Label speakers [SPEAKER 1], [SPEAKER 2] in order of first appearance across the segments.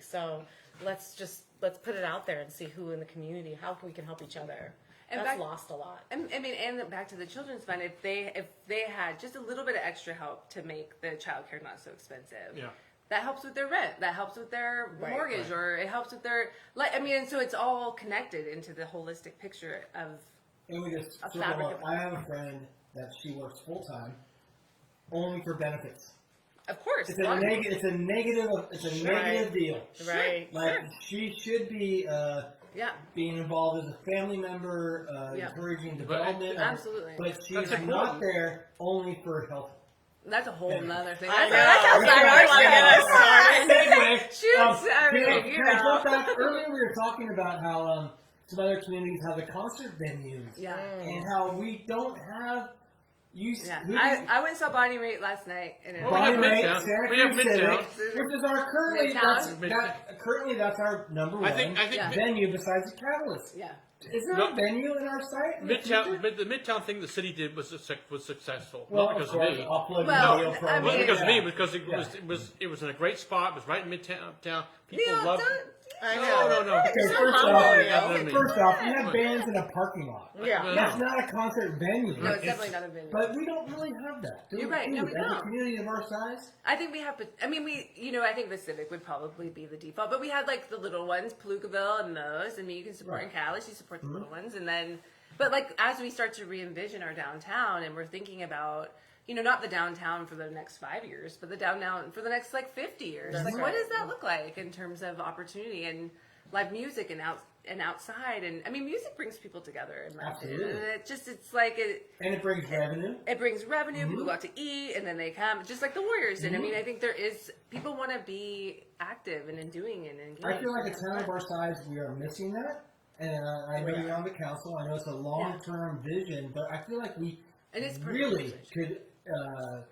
[SPEAKER 1] So let's just let's put it out there and see who in the community, how we can help each other.
[SPEAKER 2] And
[SPEAKER 1] That's
[SPEAKER 2] back-
[SPEAKER 1] lost a lot.
[SPEAKER 2] And, I mean, and back to the children's fund. If they if they had just a little bit of extra help to make the childcare not so expensive,
[SPEAKER 3] Yeah.
[SPEAKER 2] that helps with their rent. That helps with their
[SPEAKER 1] Right,
[SPEAKER 2] mortgage, or it helps with their like. I mean, and so it's all connected into the holistic picture of.
[SPEAKER 4] And we just
[SPEAKER 2] A
[SPEAKER 4] sort of
[SPEAKER 2] fabric
[SPEAKER 4] like-
[SPEAKER 2] of-
[SPEAKER 4] I have a friend that she works full time, only for benefits.
[SPEAKER 2] Of course,
[SPEAKER 4] It's a
[SPEAKER 2] laundry.
[SPEAKER 4] negative. It's a negative. It's a
[SPEAKER 1] Right.
[SPEAKER 4] negative deal.
[SPEAKER 1] Right.
[SPEAKER 4] Like
[SPEAKER 2] Sure.
[SPEAKER 4] she should be uh,
[SPEAKER 2] Yeah,
[SPEAKER 4] being involved as a family member, uh,
[SPEAKER 2] Yeah.
[SPEAKER 4] encouraging development.
[SPEAKER 2] Absolutely.
[SPEAKER 4] But she's
[SPEAKER 3] That's important.
[SPEAKER 4] not there only for health.
[SPEAKER 2] that's a whole nother thing.
[SPEAKER 1] I
[SPEAKER 2] That's,
[SPEAKER 1] know.
[SPEAKER 2] that's
[SPEAKER 1] I know.
[SPEAKER 2] outside our
[SPEAKER 1] Yeah.
[SPEAKER 2] level.
[SPEAKER 4] Anyway,
[SPEAKER 2] Shoot,
[SPEAKER 4] um,
[SPEAKER 2] I mean,
[SPEAKER 4] yeah,
[SPEAKER 2] you
[SPEAKER 4] can I
[SPEAKER 2] know.
[SPEAKER 4] jump back? Earlier, we were talking about how um, some other communities have the concert venues,
[SPEAKER 2] Yeah.
[SPEAKER 4] and how we don't have. You,
[SPEAKER 2] Yeah,
[SPEAKER 4] who do you-
[SPEAKER 2] I, I went and saw Bonnie Raitt last night, and it,
[SPEAKER 3] Well, we have
[SPEAKER 4] Bonnie Raitt,
[SPEAKER 3] Midtown.
[SPEAKER 4] Santa
[SPEAKER 3] We have
[SPEAKER 4] Cruz
[SPEAKER 3] Midtown.
[SPEAKER 4] Civic, which is our currently
[SPEAKER 2] Midtown.
[SPEAKER 4] that's, that, currently that's our number one
[SPEAKER 3] I think I think
[SPEAKER 2] Yeah.
[SPEAKER 3] Mid-
[SPEAKER 4] venue besides the Catalyst.
[SPEAKER 2] yeah,
[SPEAKER 4] Is there
[SPEAKER 3] No.
[SPEAKER 4] a venue in our site? in the
[SPEAKER 3] Midtown,
[SPEAKER 4] future?
[SPEAKER 3] mid, the Midtown thing the city did was success- was successful.
[SPEAKER 4] Well,
[SPEAKER 3] not
[SPEAKER 4] of
[SPEAKER 3] because of,
[SPEAKER 4] course,
[SPEAKER 3] me.
[SPEAKER 4] upload
[SPEAKER 2] Well,
[SPEAKER 4] video
[SPEAKER 2] I
[SPEAKER 4] program.
[SPEAKER 3] It wasn't
[SPEAKER 2] mean-
[SPEAKER 3] because of me,
[SPEAKER 4] Yeah.
[SPEAKER 3] because it
[SPEAKER 4] Yeah.
[SPEAKER 3] was it was it was in a great spot. It was right in Midtown. Town. People
[SPEAKER 2] Neil,
[SPEAKER 3] loved.
[SPEAKER 2] don't-
[SPEAKER 1] I
[SPEAKER 3] No, no, no.
[SPEAKER 4] Okay,
[SPEAKER 1] So
[SPEAKER 4] first
[SPEAKER 1] humble,
[SPEAKER 4] off,
[SPEAKER 1] yo.
[SPEAKER 3] Neil.
[SPEAKER 4] first off, we have bands in a parking lot.
[SPEAKER 1] Yeah.
[SPEAKER 4] That's not a concert venue.
[SPEAKER 2] no, it's definitely not a venue.
[SPEAKER 4] But we don't really have that. Do
[SPEAKER 2] You're
[SPEAKER 4] we?
[SPEAKER 2] right, no, we
[SPEAKER 4] As a
[SPEAKER 2] don't.
[SPEAKER 4] community of our size,
[SPEAKER 2] I think we have. I mean, we. You know, I think the Civic would probably be the default, but we had like the little ones, Palookaville and those. I mean, you can support in
[SPEAKER 4] Right.
[SPEAKER 2] Calais, you support the little ones, and then. But like as we start to re-envision our downtown, and we're thinking about, you know, not the downtown for the next five years, but the downtown for the next like fifty years.
[SPEAKER 1] That's
[SPEAKER 2] like, what
[SPEAKER 1] right.
[SPEAKER 2] does that look like in terms of opportunity and live music and out and outside? And I mean, music brings people together. In my opinion.
[SPEAKER 4] Absolutely.
[SPEAKER 2] And it just it's like it
[SPEAKER 4] and it brings revenue.
[SPEAKER 2] it brings revenue.
[SPEAKER 4] Mm-hmm.
[SPEAKER 2] People go out to eat, and then they come, just like the Warriors. And I mean, I think there is people want to be active and in doing and engaged.
[SPEAKER 4] I feel like a town of our size, we are missing that. And uh, I know
[SPEAKER 1] Yeah.
[SPEAKER 4] you're on the council. I know it's a long-term vision, but I feel like we
[SPEAKER 2] And it's part of the
[SPEAKER 4] really
[SPEAKER 2] conversation.
[SPEAKER 4] could uh,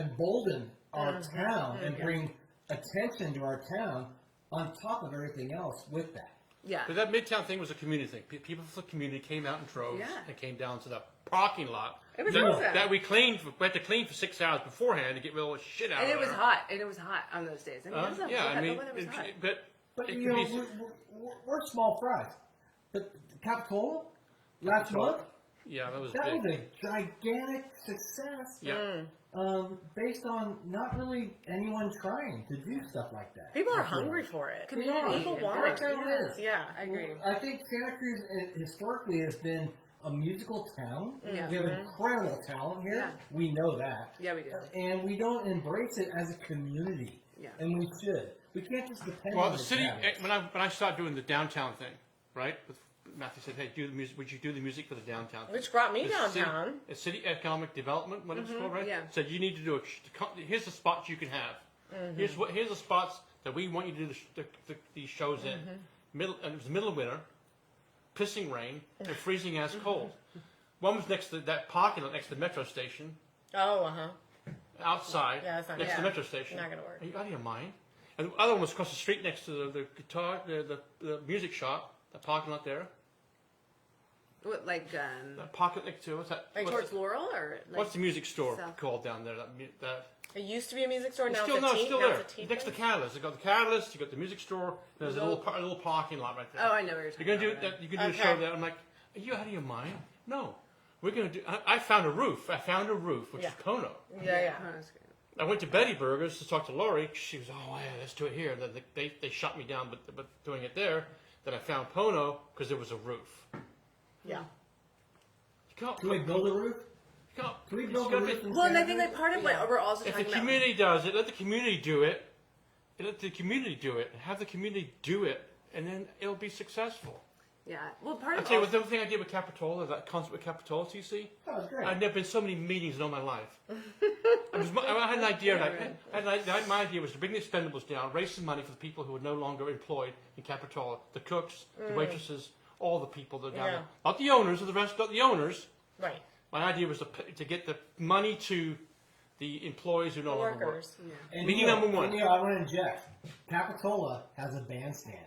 [SPEAKER 4] embolden our
[SPEAKER 2] Uh-huh.
[SPEAKER 4] town and bring attention to our town on top of everything else with that.
[SPEAKER 2] yeah,
[SPEAKER 3] But that Midtown thing was a community thing. Pe- People from the community came out in droves
[SPEAKER 2] Yeah.
[SPEAKER 3] and came down to the parking lot
[SPEAKER 2] It was
[SPEAKER 3] that,
[SPEAKER 2] awesome.
[SPEAKER 3] that we cleaned. For, we had to clean for six hours beforehand to get all the shit out
[SPEAKER 2] and
[SPEAKER 3] of
[SPEAKER 2] it was
[SPEAKER 3] there.
[SPEAKER 2] hot, and it was hot on those days. I mean,
[SPEAKER 3] Huh?
[SPEAKER 2] it was a-
[SPEAKER 3] Uh, yeah, I
[SPEAKER 2] the
[SPEAKER 3] mean,
[SPEAKER 2] weather was
[SPEAKER 3] it-
[SPEAKER 2] hot.
[SPEAKER 3] it- but
[SPEAKER 4] But
[SPEAKER 3] it
[SPEAKER 4] you
[SPEAKER 3] could
[SPEAKER 4] know,
[SPEAKER 3] be-
[SPEAKER 4] we're, we're, we're small fries. But Capitola last month,
[SPEAKER 3] yeah, that was
[SPEAKER 4] that
[SPEAKER 3] big.
[SPEAKER 4] was a gigantic success.
[SPEAKER 3] yeah.
[SPEAKER 2] Mm.
[SPEAKER 4] Um, based on not really anyone trying to do stuff like that.
[SPEAKER 1] People are
[SPEAKER 4] I feel
[SPEAKER 1] hungry
[SPEAKER 4] like.
[SPEAKER 1] for it.
[SPEAKER 2] Community.
[SPEAKER 1] People
[SPEAKER 2] Yeah.
[SPEAKER 1] want it.
[SPEAKER 4] Yeah.
[SPEAKER 1] Yeah.
[SPEAKER 2] I agree.
[SPEAKER 4] I think Santa Cruz uh, historically has been a musical town.
[SPEAKER 2] Yeah.
[SPEAKER 4] We have incredible talent here.
[SPEAKER 2] Yeah.
[SPEAKER 4] We know that.
[SPEAKER 2] Yeah, we do.
[SPEAKER 4] And we don't embrace it as a community.
[SPEAKER 2] Yeah.
[SPEAKER 4] And we should. We can't just depend
[SPEAKER 3] Well,
[SPEAKER 4] on
[SPEAKER 3] the city
[SPEAKER 4] town.
[SPEAKER 3] eh, when I when I started doing the downtown thing, right? With, Matthew said, "Hey, do the music. Would you do the music for the downtown?" thing?"
[SPEAKER 1] Which brought me
[SPEAKER 3] The city-
[SPEAKER 1] downtown. Mm-hmm,
[SPEAKER 3] the City, economic development, what it's called, right?
[SPEAKER 2] yeah.
[SPEAKER 3] Said you need to do a. sh- to co- Here's the spots you can have.
[SPEAKER 1] Mm-hmm.
[SPEAKER 3] Here's what. Here's the spots that we want you to do the, sh- the, the, these shows in.
[SPEAKER 1] Mm-hmm.
[SPEAKER 3] Middle. And it was middle of winter, pissing rain and freezing ass cold. One was next to that parking lot next to the metro station
[SPEAKER 1] Oh, uh huh.
[SPEAKER 3] outside
[SPEAKER 1] Yeah, that's not
[SPEAKER 3] next to
[SPEAKER 1] gonna-
[SPEAKER 3] the metro station.
[SPEAKER 1] not gonna work.
[SPEAKER 3] Are you out of your mind? And the other one was across the street next to the, the guitar, the, the, the music shop, the parking lot there.
[SPEAKER 2] What, like um,
[SPEAKER 3] That pocket next to what's that?
[SPEAKER 1] Like
[SPEAKER 3] what's,
[SPEAKER 2] towards Laurel or like,
[SPEAKER 3] what's the music store
[SPEAKER 2] South-
[SPEAKER 3] called down there? That mu- that
[SPEAKER 1] It used to be a music store.
[SPEAKER 3] it's
[SPEAKER 1] Now
[SPEAKER 3] still
[SPEAKER 1] it's a
[SPEAKER 3] no, it's
[SPEAKER 1] tea.
[SPEAKER 3] still
[SPEAKER 1] now
[SPEAKER 3] there.
[SPEAKER 1] it's a tea.
[SPEAKER 3] next to
[SPEAKER 1] place.
[SPEAKER 3] Catalyst, you got the Catalyst, you got the music store. There's a little par- a little parking lot right there.
[SPEAKER 2] Oh, I know what you're talking
[SPEAKER 3] You're gonna
[SPEAKER 2] about
[SPEAKER 3] do
[SPEAKER 2] now.
[SPEAKER 3] that. You can do
[SPEAKER 1] Okay.
[SPEAKER 3] a show there. I'm like, are you out of your mind? No, we're gonna do. I, I found a roof. I found a roof, which
[SPEAKER 1] Yeah.
[SPEAKER 3] is Kono.
[SPEAKER 1] yeah, yeah.
[SPEAKER 2] Oh, that's great.
[SPEAKER 3] I went to Betty Burgers to talk to Lori. She was, oh, yeah, let's do it here. Then they, they shot me down, but, but doing it there. Then I found Pono because there was a roof. You
[SPEAKER 1] Yeah.
[SPEAKER 3] can't,
[SPEAKER 4] Can we build a roof?
[SPEAKER 3] you can't,
[SPEAKER 4] Can we
[SPEAKER 3] it's
[SPEAKER 4] build a
[SPEAKER 3] gotta
[SPEAKER 4] roof?
[SPEAKER 3] be-
[SPEAKER 4] in
[SPEAKER 2] Well, and I
[SPEAKER 4] Santa
[SPEAKER 2] think
[SPEAKER 4] Cruz?
[SPEAKER 2] like part of what we're also
[SPEAKER 3] if the
[SPEAKER 2] talking about.
[SPEAKER 3] community does it, let the community do it. And Let the community do it. Have the community do it, and then it'll be successful.
[SPEAKER 2] yeah, well, part
[SPEAKER 3] I
[SPEAKER 2] of
[SPEAKER 3] tell you what,
[SPEAKER 2] also-
[SPEAKER 3] the other thing I did with Capitola, that concert with Capitola, TC,
[SPEAKER 4] That was Oh, great.
[SPEAKER 3] I've never been to so many meetings in all my life. I, was, I had an idea. Like, I had an idea- my idea was to bring the expendables down, raise some money for the people who are no longer employed in Capitola, the cooks, the waitresses, all the people that are down
[SPEAKER 1] Yeah.
[SPEAKER 3] there. Not the owners of the rest, not the owners.
[SPEAKER 1] Right.
[SPEAKER 3] My idea was to, p- to get the money to the employees who no longer work.
[SPEAKER 1] Workers.
[SPEAKER 4] And
[SPEAKER 3] Meeting
[SPEAKER 4] Neil-
[SPEAKER 3] number one.
[SPEAKER 4] Neil, I want to inject. Capitola has a bandstand.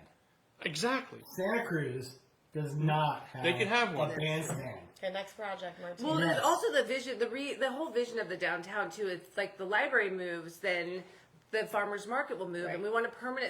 [SPEAKER 3] Exactly.
[SPEAKER 4] Santa Cruz does not have.
[SPEAKER 3] They can have one.
[SPEAKER 4] A bandstand.
[SPEAKER 1] Okay, next project, Martin.
[SPEAKER 2] Well,
[SPEAKER 4] Yes.
[SPEAKER 2] and also the vision, the re, the whole vision of the downtown too. It's like the library moves, then the farmers market will move,
[SPEAKER 1] Right.
[SPEAKER 2] and we want a permanent